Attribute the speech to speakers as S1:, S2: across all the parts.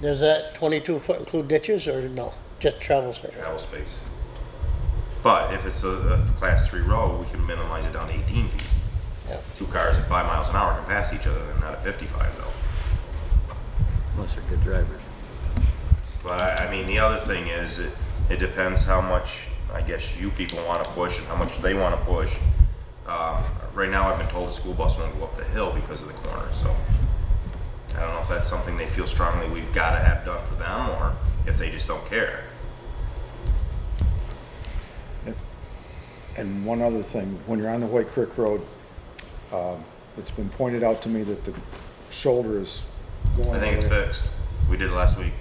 S1: Does that twenty-two foot include ditches or no? Just travel surface?
S2: travel space. But if it's a, a class three road, we can minimize it down to eighteen feet.
S1: Yeah.
S2: Two cars at five miles an hour can pass each other, and not at fifty-five though.
S3: Unless they're good drivers.
S2: But I, I mean, the other thing is, it, it depends how much, I guess, you people wanna push and how much they wanna push. Um, right now, I've been told the school bus won't go up the hill because of the corner, so. I don't know if that's something they feel strongly we've gotta have done for them, or if they just don't care.
S4: And one other thing, when you're on the White Creek Road, um, it's been pointed out to me that the shoulder is
S2: I
S4: going
S2: think it's fixed. We did it last week.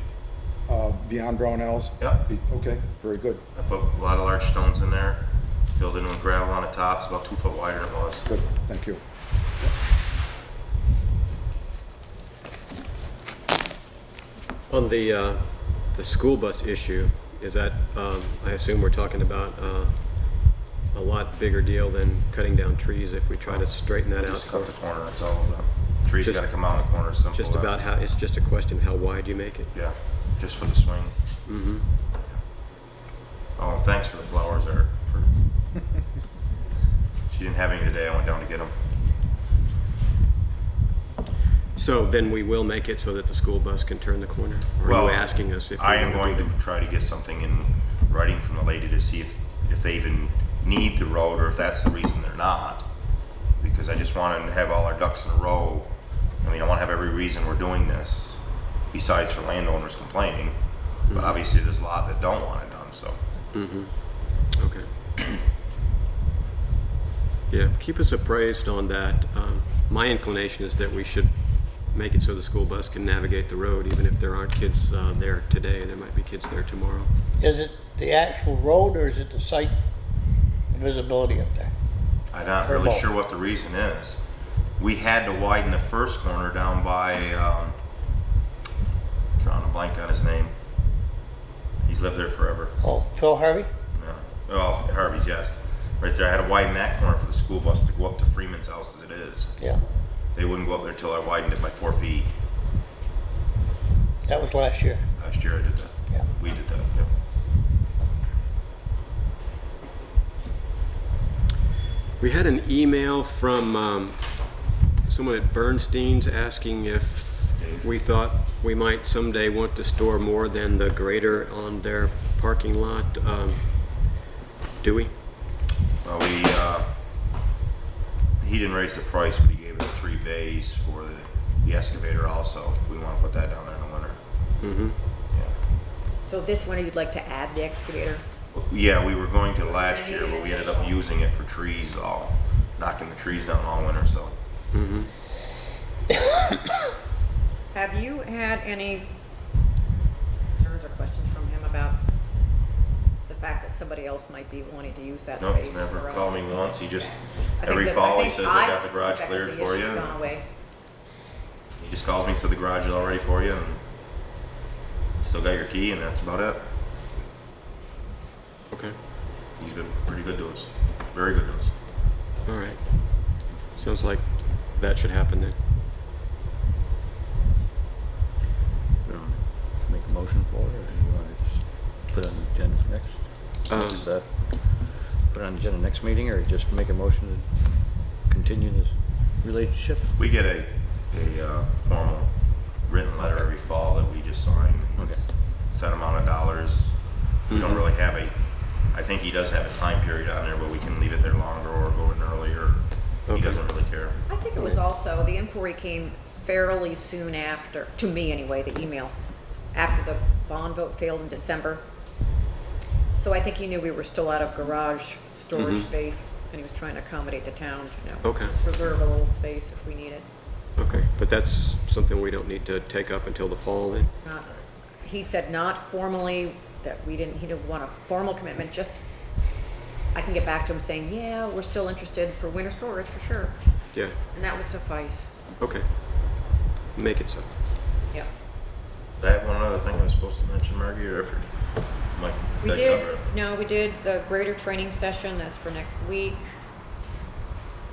S4: uh, beyond Brownells?
S2: Yeah.
S4: Be- Okay, very good,
S2: I put a lot of large stones in there, filled in with gravel on the top, it's about two foot wider than it was.
S4: good, thank you.
S3: On the, uh, the school bus issue, is that, um, I assume we're talking about, uh, a lot bigger deal than cutting down trees if we try to straighten that out?
S2: Just
S3: for
S2: cut the corner, that's all about. Trees
S3: Just-
S2: gotta come out in the corner, simple.
S3: Just
S2: that-
S3: about how, it's just a question of how wide you make it.
S2: Yeah, just for the swing. Mm-hmm. Oh, and thanks for the flowers, Eric. For... she didn't have any today. I went down to get them.
S3: So then we will make it so that the school bus can turn the corner? Or are
S2: Well,
S3: you asking us if? we
S2: I am
S3: wanna
S2: going
S3: do
S2: to try to get something in writing from the lady to see if, if they even need the road or if that's the reason they're not. Because I just want to have all our ducks in a row. I mean, I want to have every reason we're doing this besides for landowners complaining.
S3: Mm-hmm.
S2: But obviously, there's a lot that don't want it done, so.
S3: that? Okay. Yeah, keep us appraised on that. Um, My inclination is that we should make it so the school bus can navigate the road, even if there aren't kids uh, there today, there might be kids there tomorrow.
S1: Is it the actual road or is it the site visibility up there?
S2: I'm not
S1: Or
S2: really
S1: both.
S2: sure what the reason is. We had to widen the first corner down by, um, drawing a blank on his name. He's lived there forever.
S1: Oh, Phil Harvey?
S2: Yeah. Uh, Well, Harvey's, yes. Right there, I had to widen that corner for the school bus to go up to Freeman's house as it is.
S1: Yeah,
S2: They wouldn't go up there till I widened it by four feet.
S1: that was last year.
S2: Last year I did that.
S1: Yeah.
S2: We did that, yeah.
S3: We had an email from um, someone at Bernstein's asking if we thought we might someday want to store more than the grader on their parking lot. Um, Do we?
S2: Well, we, uh, he didn't raise the price, but he gave us three bays for the, the excavator also. We wanna put that down there in the winter. Mm-hmm.
S5: So this winter, you'd like to add the excavator?
S2: Yeah, we were going to last year, but we ended up using it for trees all, knocking the trees down all winter, so.
S5: Have you had any concerns or questions from him about the fact that somebody else might be wanting to use that
S2: No,
S5: space?
S2: he's never
S5: for us?
S2: called me once, he just,
S5: I think
S2: every
S5: that- I
S2: fall, he
S5: think
S2: says,
S5: I
S2: I got the garage
S5: suspect that
S2: cleared
S5: the
S2: for you.
S5: issue's
S2: and
S5: gone away.
S2: He just calls me, said the garage is all ready for you, and still got your key, and that's about it.
S3: Okay,
S2: He's been pretty good to us, very good to us.
S3: all right. Sounds like that should happen then.
S6: We don't Make a motion for it, or you want to just put it on the agenda for next?
S3: Um,
S6: Is that- Put it on the agenda next meeting, or just make a motion to continue this relationship?
S2: We get a, a uh, formal written letter every fall that we just sign. and
S6: Okay.
S2: it's a Set amount of dollars. We don't really have a, I think he does have a time period on there, but we can leave it there longer or go in earlier. He
S3: Okay.
S2: doesn't really care.
S5: I think it was also, the inquiry came fairly soon after, to me anyway, the email, after the bond vote failed in December. So I think he knew we were still out of garage storage space, and he was trying to accommodate the town, you know.
S3: Okay.
S5: Just reserve a little space if we need it.
S3: Okay, but that's something we don't need to take up until the fall then?
S5: Not- He said not formally, that we didn't, he didn't want a formal commitment, just, I can get back to him saying, yeah, we're still interested for winter storage, for sure.
S3: Yeah,
S5: And that would suffice,
S3: okay. Make it so.
S5: yeah.
S2: I have one other thing I was supposed to mention, Margie, or if, Mike,
S5: We
S2: did I
S5: did,
S2: cover it?
S5: no, we did the greater training session, that's for next week.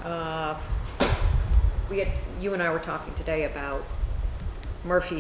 S5: Uh, We had, you and I were talking today about Murphy